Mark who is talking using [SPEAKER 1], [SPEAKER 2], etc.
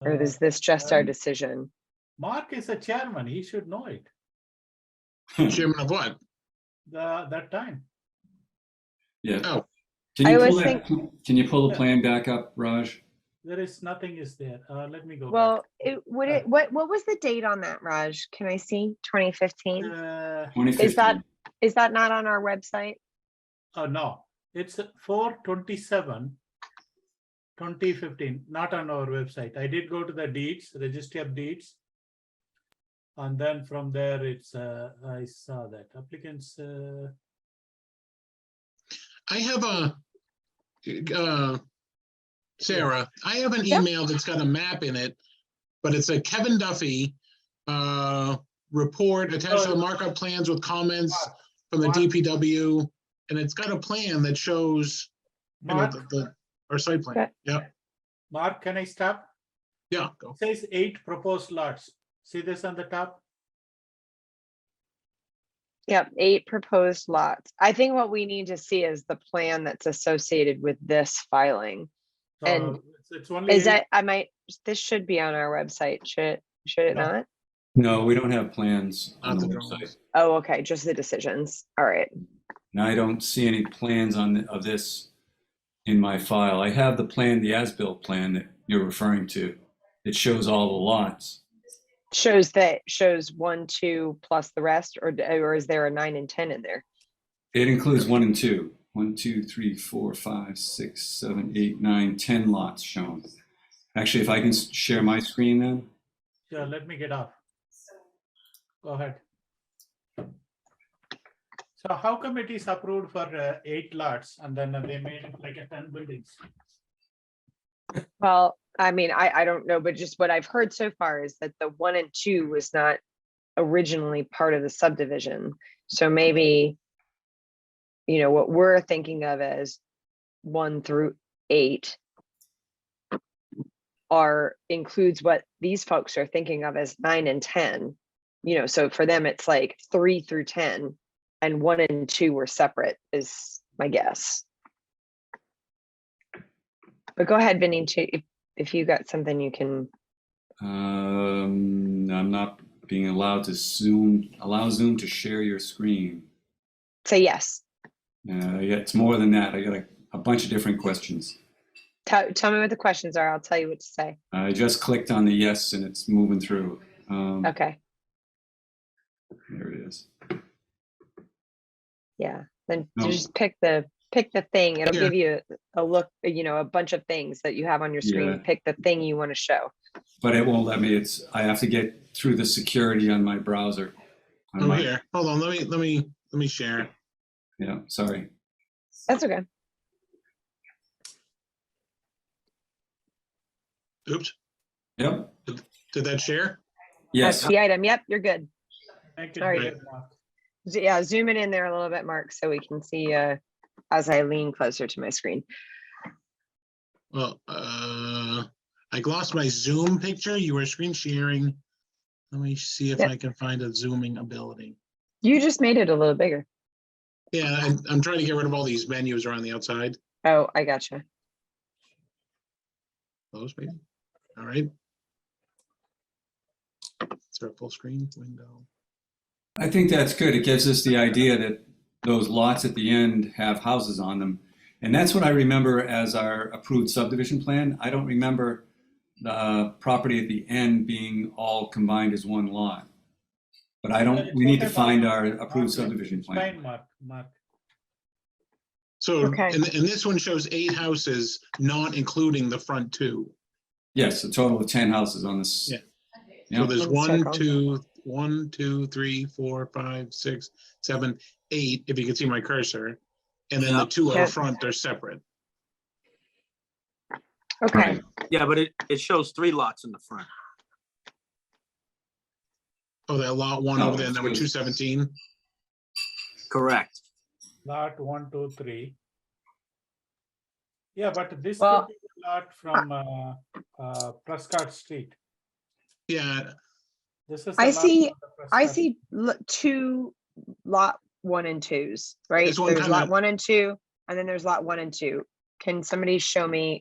[SPEAKER 1] Or
[SPEAKER 2] Uh,
[SPEAKER 1] is this just our
[SPEAKER 2] um,
[SPEAKER 1] decision?
[SPEAKER 2] Mark is a chairman, he should know it,
[SPEAKER 3] Chairman of what?
[SPEAKER 2] the, that time.
[SPEAKER 4] Yeah.
[SPEAKER 3] Oh.
[SPEAKER 4] Can
[SPEAKER 1] I
[SPEAKER 4] you pull
[SPEAKER 1] was Uh,
[SPEAKER 4] that, can you pull the plan back up, Raj?
[SPEAKER 2] There is, nothing is there. Uh, let me go. back.
[SPEAKER 1] Well, it, would
[SPEAKER 2] Uh,
[SPEAKER 1] it, what, what was the date on that, Raj? Can I see? Twenty fifteen?
[SPEAKER 2] Uh,
[SPEAKER 1] Is that,
[SPEAKER 4] 2015.
[SPEAKER 1] is that not on our website?
[SPEAKER 2] oh, no, it's four twenty-seven, twenty fifteen, not on our website. I did go to the deeds, registry of deeds. And then from there, it's, uh, I saw that applicants, uh,
[SPEAKER 3] I have a, uh, Sarah, I have an
[SPEAKER 1] Yeah.
[SPEAKER 3] email that's got a map in it, but it's a Kevin Duffy, uh, report attached to the markup plans with comments from the
[SPEAKER 2] Mark.
[SPEAKER 3] DPW. And it's got a plan that shows, you know,
[SPEAKER 2] Mark,
[SPEAKER 3] the, the, our site plan.
[SPEAKER 1] Okay.
[SPEAKER 3] Yep,
[SPEAKER 2] Mark, can I stop?
[SPEAKER 3] yeah, go.
[SPEAKER 2] Says eight proposed lots. See this on the top?
[SPEAKER 1] Yep, eight proposed lots. I think what we need to see is the plan that's associated with this filing.
[SPEAKER 2] So
[SPEAKER 1] And
[SPEAKER 2] it's- It's only.
[SPEAKER 1] Is
[SPEAKER 2] eight.
[SPEAKER 1] that, I might, this should be on our website, should, it? should it
[SPEAKER 2] No.
[SPEAKER 1] not?
[SPEAKER 4] No, we don't have plans on
[SPEAKER 3] Not
[SPEAKER 4] the
[SPEAKER 3] the
[SPEAKER 4] website.
[SPEAKER 3] drawings.
[SPEAKER 1] Oh, okay, just the decisions. All right.
[SPEAKER 4] And I don't see any plans on, th- of this in my file. I have the plan, the as-built plan that you're referring to. It shows all the lots.
[SPEAKER 1] Shows that, shows one, two plus the rest, or, d- or is there a nine and ten in there?
[SPEAKER 4] It includes one and two. One, two, three, four, five, six, seven, eight, nine, 10 lots shown. Actually, if I can s- share my screen then?
[SPEAKER 2] Sure, let me get off. Go ahead. So how come it is approved for uh, eight lots and then uh, they made it like a ten buildings?
[SPEAKER 1] Well, I mean, I, I don't know, but just what I've heard so far is that the one and two was not originally part of the subdivision. So maybe, you know, what we're thinking of as one through eight are, includes what these folks are thinking of as nine and 10. You know, so for them, it's like three through 10 and one and two were separate is my guess. But go ahead, Vinny, to- if, if you got something you can,
[SPEAKER 4] Um, I'm not being allowed to Zoom, allow Zoom to share your screen.
[SPEAKER 1] say yes.
[SPEAKER 4] Uh, yeah, it's more than that. I got a, a bunch of different questions.
[SPEAKER 1] Tell, tell me what the questions are. I'll tell you what to say.
[SPEAKER 4] I just clicked on the yes and it's moving through. Um,
[SPEAKER 1] Okay,
[SPEAKER 4] There it is.
[SPEAKER 1] yeah. Then you
[SPEAKER 4] No.
[SPEAKER 1] just pick the, pick the thing. It'll
[SPEAKER 3] Yeah.
[SPEAKER 1] give you a look, you know, a bunch of things that you have on your
[SPEAKER 4] Yeah.
[SPEAKER 1] screen. Pick the thing you want to show.
[SPEAKER 4] But it won't let me. It's I have to get through the security on my browser. On
[SPEAKER 3] Oh,
[SPEAKER 4] my-
[SPEAKER 3] here, hold on, let me, let me, let me share.
[SPEAKER 4] Yeah, sorry.
[SPEAKER 1] That's okay.
[SPEAKER 3] Oops,
[SPEAKER 4] Yep.
[SPEAKER 3] did that share?
[SPEAKER 1] That's
[SPEAKER 4] Yes.
[SPEAKER 1] the item. Yep, you're good.
[SPEAKER 2] Make it
[SPEAKER 1] Sorry.
[SPEAKER 2] bigger, Mark.
[SPEAKER 1] Z- Yeah, zoom it in there a little bit, Mark, so we can see, uh, as I lean closer to my screen.
[SPEAKER 3] Well, uh, I glossed my Zoom picture. You were screen sharing. Let me see if
[SPEAKER 1] Yep.
[SPEAKER 3] I can find a zooming ability.
[SPEAKER 1] You just made it a little bigger.
[SPEAKER 3] Yeah, I, I'm trying to get rid of all these menus around the outside.
[SPEAKER 1] Oh, I gotcha.
[SPEAKER 3] Those maybe. All right. Is there a full screen window?
[SPEAKER 4] I think that's good. It gives us the idea that those lots at the end have houses on them. And that's what I remember as our approved subdivision plan. I don't remember the property at the end being all combined as one lot. But I don't, we need to find our approved subdivision plan.
[SPEAKER 2] Fine, Mark, Mark.
[SPEAKER 3] So, and,
[SPEAKER 1] Okay.
[SPEAKER 3] and this one shows eight houses, not including the front two.
[SPEAKER 4] Yes, a total of 10 houses on this.
[SPEAKER 3] Yeah. So
[SPEAKER 4] Yeah,
[SPEAKER 3] there's
[SPEAKER 1] One
[SPEAKER 3] one,
[SPEAKER 1] circle.
[SPEAKER 3] two, one, two, three, four, five, six, seven, eight, if you can see my cursor. And then the
[SPEAKER 5] Yeah.
[SPEAKER 3] two
[SPEAKER 1] Yeah.
[SPEAKER 3] out front are separate.
[SPEAKER 1] Okay.
[SPEAKER 5] Yeah, but it, it shows three lots in the front.
[SPEAKER 3] Oh, that lot one
[SPEAKER 4] No,
[SPEAKER 3] over there,
[SPEAKER 4] it's
[SPEAKER 3] number
[SPEAKER 4] good.
[SPEAKER 3] two seventeen,
[SPEAKER 5] Correct.
[SPEAKER 2] Lot one, two, three. Yeah, but this
[SPEAKER 1] Well-
[SPEAKER 2] could be a lot from uh, uh, Prescott Street.
[SPEAKER 3] yeah,
[SPEAKER 2] This is.
[SPEAKER 1] I
[SPEAKER 2] the lot
[SPEAKER 1] see-
[SPEAKER 2] from the
[SPEAKER 1] I
[SPEAKER 2] Prescott-
[SPEAKER 1] see lo- two lot one and twos, right?
[SPEAKER 3] There's one
[SPEAKER 1] There's lot
[SPEAKER 3] kinda-
[SPEAKER 1] one and two, and then there's lot one and two. Can somebody show me